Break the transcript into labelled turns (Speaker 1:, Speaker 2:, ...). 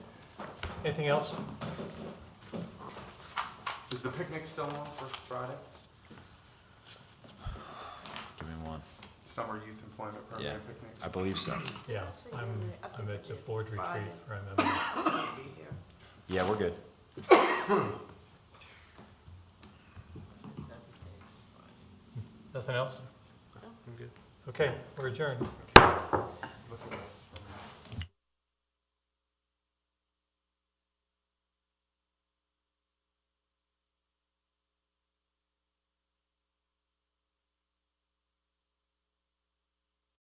Speaker 1: Anything else?
Speaker 2: Is the picnic still on for Friday?
Speaker 3: Give me one.
Speaker 2: Summer youth employment
Speaker 3: Yeah,
Speaker 2: program picnic?
Speaker 3: I believe so.
Speaker 1: Yeah,
Speaker 4: So
Speaker 1: I'm,
Speaker 4: you're- I
Speaker 1: I'm
Speaker 4: think
Speaker 1: at the
Speaker 4: you're
Speaker 1: board retreat,
Speaker 4: Friday.
Speaker 1: if I remember.
Speaker 4: be here.
Speaker 3: Yeah, we're good.
Speaker 1: Nothing else?
Speaker 4: No.
Speaker 1: Okay, we're adjourned.
Speaker 2: Okay.